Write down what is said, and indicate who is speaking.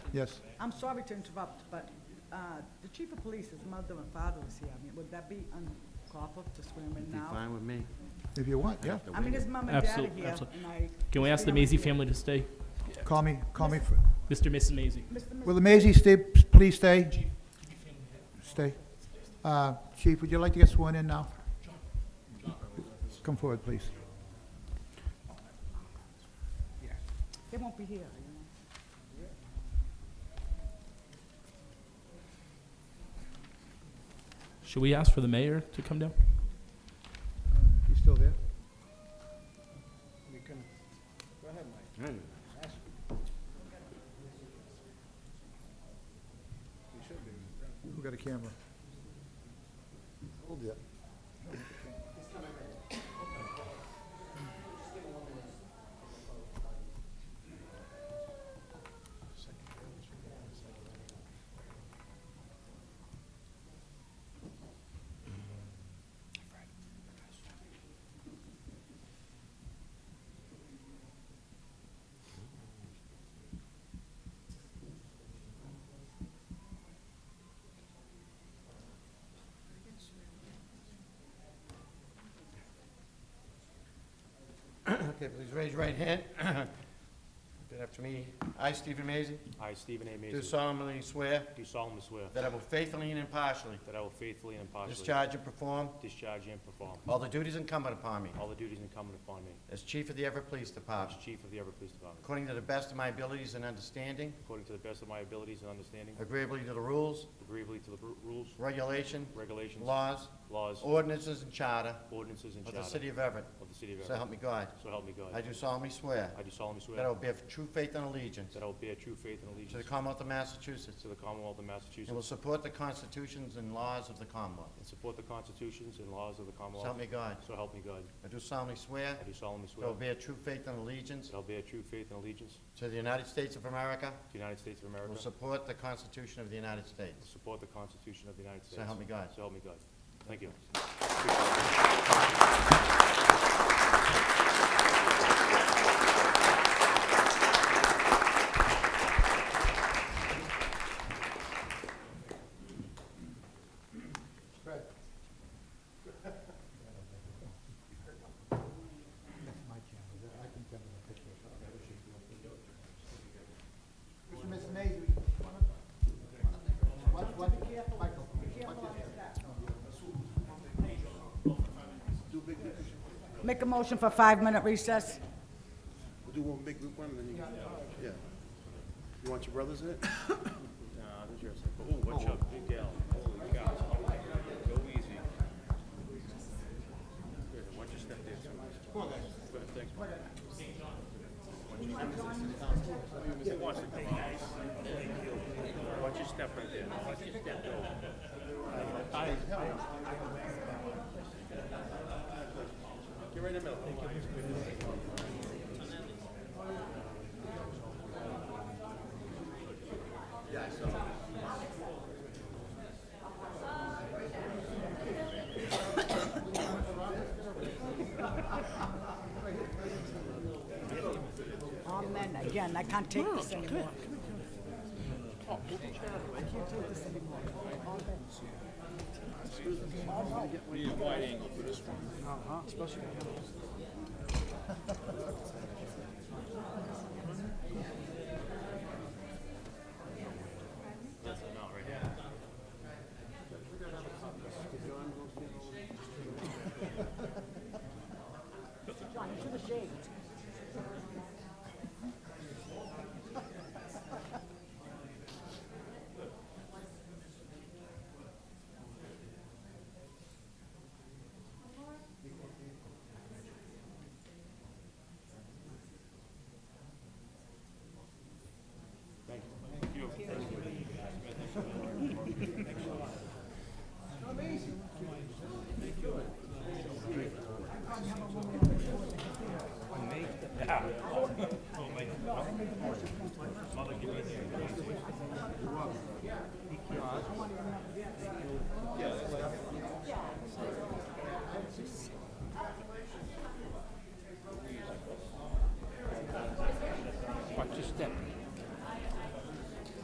Speaker 1: Yes.
Speaker 2: I'm sorry to interrupt, but uh, the chief of police, his mother and father was here. I mean, would that be unlawful to swear him in
Speaker 3: Be
Speaker 2: now?
Speaker 3: fine with me.
Speaker 1: If you want,
Speaker 3: I
Speaker 1: yeah.
Speaker 3: have to
Speaker 2: I mean,
Speaker 3: wait.
Speaker 2: his mom and dad are
Speaker 4: Absolute-
Speaker 2: here,
Speaker 4: absolute.
Speaker 2: and I...
Speaker 4: Can we ask the Maisie family to stay?
Speaker 1: Call me, call me. fir-
Speaker 4: Mr. and Mrs. Maisie?
Speaker 2: Mr. Mc-
Speaker 1: Will the Maisy stay, please stay? Stay. Uh, Chief, would you like to get sworn in now? Come forward, please.
Speaker 2: They won't be here, you know.
Speaker 4: Should we ask for the mayor to come down?
Speaker 1: Uh, You still there?
Speaker 3: Hey,
Speaker 1: Who got a camera? Hold it.
Speaker 3: Okay, please raise your right hand. Repeat after me. I, Stephen Mazie,
Speaker 5: I, Stephen A.
Speaker 3: do
Speaker 5: Mason,
Speaker 3: solemnly swear
Speaker 5: do solemnly swear
Speaker 3: that I will faithfully and impartially
Speaker 5: that I will faithfully and impartially
Speaker 3: discharge and perform
Speaker 5: discharge and perform
Speaker 3: all the duties incumbent upon me
Speaker 5: all the duties incumbent upon me
Speaker 3: as Chief of the Everett Police
Speaker 5: as
Speaker 3: Department,
Speaker 5: Chief of the Everett Police Department,
Speaker 3: according to the best of my abilities and understanding,
Speaker 5: according to the best of my abilities and understanding,
Speaker 3: agreeably to the rules,
Speaker 5: agreeably to the ru- rules,
Speaker 3: regulation,
Speaker 5: regulations,
Speaker 3: laws,
Speaker 5: laws,
Speaker 3: ordinances, and charter
Speaker 5: ordinances, and
Speaker 3: of
Speaker 5: charter
Speaker 3: the
Speaker 5: of the
Speaker 3: City of Everett.
Speaker 5: City of
Speaker 3: So
Speaker 5: Everett.
Speaker 3: help me God.
Speaker 5: So help me
Speaker 3: I
Speaker 5: God.
Speaker 3: do solemnly swear
Speaker 5: I do solemnly
Speaker 3: that I
Speaker 5: swear
Speaker 3: will bear true faith and allegiance
Speaker 5: that I will bear true faith and
Speaker 3: to the
Speaker 5: allegiance
Speaker 3: Commonwealth of Massachusetts
Speaker 5: to the Commonwealth of
Speaker 3: and will
Speaker 5: Massachusetts
Speaker 3: support the constitutions and laws of the Commonwealth.
Speaker 5: and support the constitutions and laws of the
Speaker 3: So
Speaker 5: Commonwealth.
Speaker 3: help me God.
Speaker 5: So help me God.
Speaker 3: I do solemnly swear
Speaker 5: I do solemnly
Speaker 3: that I
Speaker 5: swear
Speaker 3: will bear true faith and allegiance
Speaker 5: that I will bear true faith and allegiance to
Speaker 3: to the United States of America,
Speaker 5: the United States of
Speaker 3: and
Speaker 5: America,
Speaker 3: will support the Constitution of the United
Speaker 5: and
Speaker 3: States.
Speaker 5: support the Constitution of the United States.
Speaker 3: So help me God.
Speaker 5: So help me God. Thank you.
Speaker 1: Mr. and Mrs. Maisy, what, what, Michael?
Speaker 2: Make a motion for five-minute recess?
Speaker 6: We'll do one big group one, and then you, yeah. You want your brothers in it? Nah, that's yours. Oh, watch out, big gal, holy cow. Go easy. Good, Watch your step there, too. Come on, guys. Good, thanks. Watch your- Watch it, come on. Watch your step right there, watch your step go. Get right in the middle.
Speaker 2: Oh, man, again, I can't take this anymore. I can't take this anymore. All day. John, you should have shaved.